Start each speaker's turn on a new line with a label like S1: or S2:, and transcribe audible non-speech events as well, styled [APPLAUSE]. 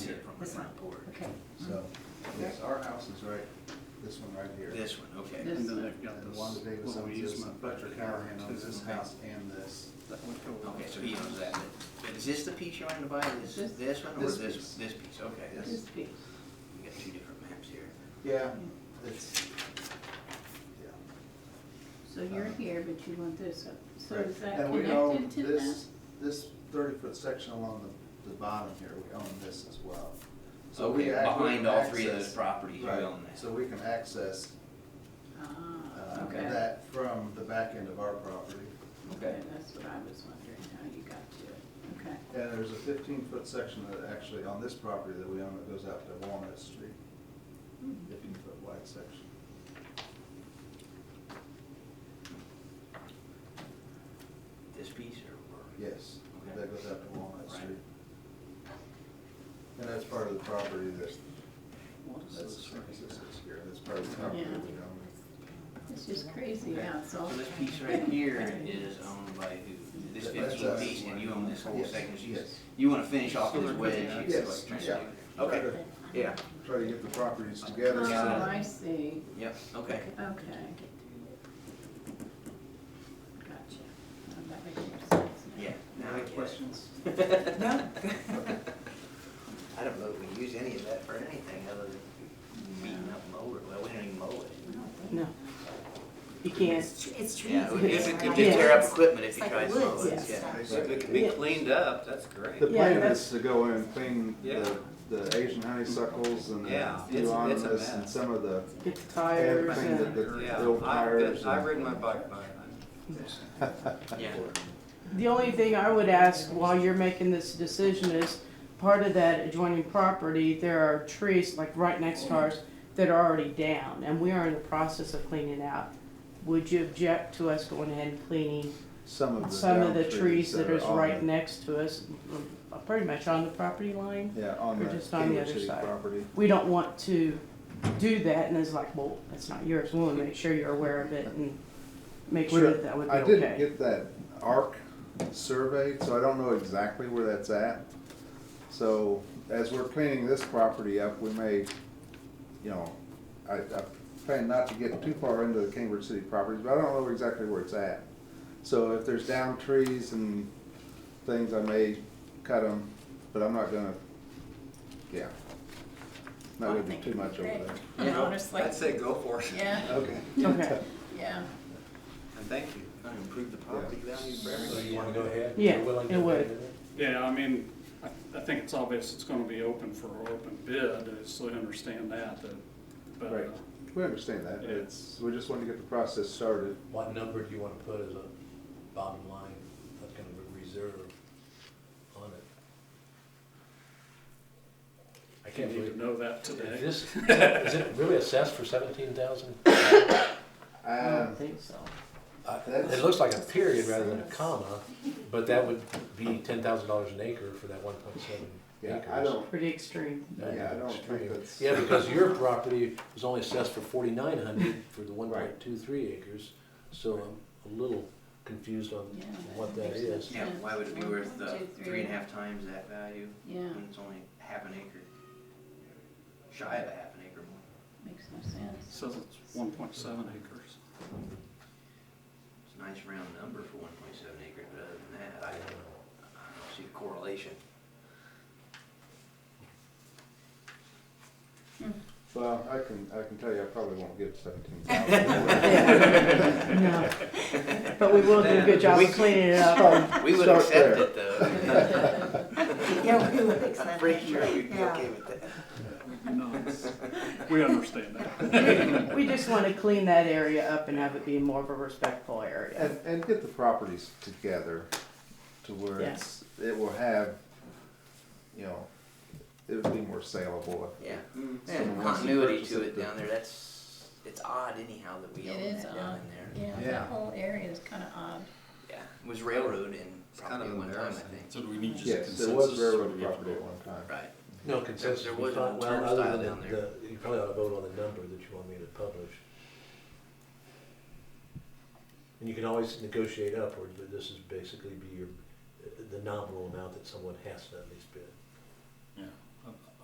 S1: This one.
S2: front porch.
S1: Okay.
S3: So, yes, our house is right, this one right here.
S2: This one, okay.
S1: This-
S4: And then they've got
S3: And
S4: this,
S3: Wanda Davis
S4: what we
S3: owns
S4: use
S3: this,
S4: my
S3: and Patrick
S4: budget
S3: Howard
S4: power
S3: owns this house and this.
S4: That would go.
S2: Okay, so he owns that. But is this the piece you're wanting to buy? Is this, this one or
S3: This
S2: this, this
S3: piece.
S2: piece? Okay, that's,
S1: This piece.
S2: we got two different maps here.
S3: Yeah, it's,
S1: So you're here, but you want this up. So
S3: yeah.
S1: is that
S3: Uh, And we own
S1: connected to that?
S3: this This thirty-foot section along the, the bottom here, we own this as well. So we
S2: Okay,
S3: ac- we
S2: behind
S3: can
S2: all three of
S3: access-
S2: those properties, you
S3: right,
S2: own that.
S3: So we can access,
S1: Ah,
S3: uh,
S1: okay.
S3: that from the back end of our property.
S1: Okay, that's what I was wondering, how you got to it. Okay.
S3: And there's a fifteen-foot section that actually, on this property that we own, that goes out to Walnut Street,
S1: Mhm.
S3: fifteen-foot wide section.
S2: This piece or? or-
S3: Yes,
S2: Okay.
S3: that goes out to Walnut
S2: Right.
S3: Street. And that's part of the property that,
S4: What is
S3: that's, this
S4: this right
S3: is
S4: here?
S3: here, that's part of the property
S1: Yeah.
S3: that we own.
S1: It's just crazy
S2: Okay.
S1: how it's all.
S2: So this piece right
S1: [LAUGHS]
S2: here is owned by who? This
S3: That- that's
S2: fifteen
S3: us.
S2: piece and you own this whole
S3: Yes,
S2: section? So you-
S3: yes.
S2: You wanna finish off
S4: So
S2: this
S4: they're
S2: wedge?
S4: putting
S2: you
S4: that-
S2: feel
S3: Yes,
S2: like trying to
S3: yeah.
S2: do there. Okay, yeah,
S3: Try to get the properties
S1: Oh,
S3: together. so that-
S1: I see,
S2: yep, okay.
S1: okay. Gotcha. Oh, That makes more sense. now.
S2: Yeah, now I get it.
S4: Questions?
S2: [LAUGHS]
S5: [LAUGHS]
S2: No. I don't know if we use any of that for anything other than beating up mower, well, we don't even mow it.
S5: No. You can't.
S6: It's trees.
S2: Yeah, it would- it
S6: it's
S2: would it
S6: like
S2: would tear up
S6: woods.
S2: equipment if
S6: It's
S2: you
S6: like
S2: tried to mow
S6: woods
S2: it,
S6: and
S2: yeah.
S6: stuff.
S3: So it
S5: could be
S4: cleaned up, that's great.
S5: Yeah,
S3: The plan
S5: that's-
S3: is to go in and clean
S4: Yeah.
S3: the, the Asian honeysuckles and the
S4: Yeah, it's- it's a
S3: euonymus and
S4: mess.
S3: some of the,
S5: Get the tires
S3: Everything that
S5: and,
S3: the- the old tires. and-
S4: my bike by it.
S2: Yeah.
S5: the only thing I would ask while you're making this decision is, part of that adjoining property, there are trees like right next to ours that are already down and we are in the process of cleaning out. Would you object to us going ahead and cleaning
S3: [LAUGHS] Some of the
S5: some of
S3: down
S5: the trees that is
S3: on
S5: right
S3: the-
S5: next to us, uh, pretty much on the property line?
S3: Yeah, on
S5: or
S3: the
S5: just on the
S3: Kingwood
S5: other
S3: City
S5: side.
S3: property.
S5: we don't want to do that, and it's like, well, that's not yours, we want to make sure you're aware of it and make sure
S3: Sure.
S5: that that would be
S3: I didn't
S5: okay.
S3: get that ARC surveyed, so I don't know exactly where that's at. So as we're cleaning this property up, we may, you know, I, I plan not to get too far into the Cambridge City properties, but I don't know exactly where it's at. So if there's down trees and things, I may cut them, but I'm not gonna, yeah. Not gonna do too much over there.
S1: And Honestly,
S4: I'd say go for it,
S1: yeah,
S3: Okay.
S5: Okay,
S1: yeah.
S4: and thank you.
S2: Gonna improve the property value for
S7: So
S2: everybody.
S7: you wanna go ahead?
S5: Yeah,
S7: You're willing to
S5: it
S7: go
S5: would.
S7: ahead with it?
S8: Yeah, I mean, I, I think it's obvious it's gonna be open for open bid, so we understand that, that, but,
S3: Right,
S8: uh,
S3: we understand that, it's, we just want to get the process started.
S7: What number do you wanna put as a bottom line, that's gonna be reserved on it? I
S8: you
S7: can't
S8: need
S7: believe.
S8: to know that today.
S7: Is this, is it really assessed for seventeen thousand?
S5: I
S3: Um,
S2: Oh.
S5: don't think so.
S7: It looks like a period rather than a comma, but that would be ten thousand dollars an acre for that one point seven
S3: Yeah,
S7: acres.
S3: I don't,
S5: Pretty extreme.
S7: That'd
S3: Yeah, I
S7: be
S3: don't think
S7: extreme.
S3: that's-
S7: Yeah, because your property was only assessed for forty-nine hundred for the one
S3: Right.
S7: point two three acres, so I'm a little confused on
S1: Yeah,
S7: what that
S1: that
S7: is.
S1: sense.
S2: Yeah, why would it be worth uh,
S1: One, two, three.
S2: three and a half times that value
S1: Yeah,
S2: when it's only half an acre? Shy of a half an acre more.
S1: makes no sense.
S3: [LAUGHS]
S1: [LAUGHS]
S8: Says it's one point seven acres.
S2: It's a nice round number for one point seven acres, but other than that, I don't, I don't see the correlation.
S3: well, I can, I can tell you, I probably won't give seventeen thousand.
S5: No. But we will do a good job of cleaning it
S2: [LAUGHS]
S5: up.
S2: We would
S3: Start
S2: accept it
S3: there.
S2: though.
S6: Yeah, we
S2: [LAUGHS]
S6: would accept that.
S2: Pretty sure we'd be
S6: Yeah.
S2: okay with that.
S8: No, it's- we understand that.
S5: We just want to clean that area up and have it be more of a respectful area.
S3: And, and get the properties together to where it's, it will have, you know, it would be more saleable.
S2: Yeah,
S3: So
S2: and
S3: once you
S2: continuity
S3: purchase
S2: to
S3: it,
S2: it
S3: the-
S2: down there, that's, it's odd anyhow that we
S1: It
S2: own
S1: is
S2: that down
S1: odd.
S2: in there.
S1: Yeah,
S3: Yeah.
S1: that whole area is kind of odd.
S2: Yeah, it was railroad and
S4: kind
S2: probably
S4: of
S2: at one time, I
S4: embarrassing.
S2: think.
S8: So do we need just
S3: Yes,
S8: consensus?
S3: it was
S8: or do
S3: railroad
S8: we have to
S3: property at
S8: vote?
S3: one time.
S2: Right.
S7: No consensus.
S2: there
S7: we
S2: was
S7: thought-
S2: no
S7: well, other
S2: turnstile
S7: than
S2: down there.
S7: the- You probably ought to vote on the number that you want me to publish. And you can always negotiate upward, but this is basically be your, the nominal amount that someone has to at least bid.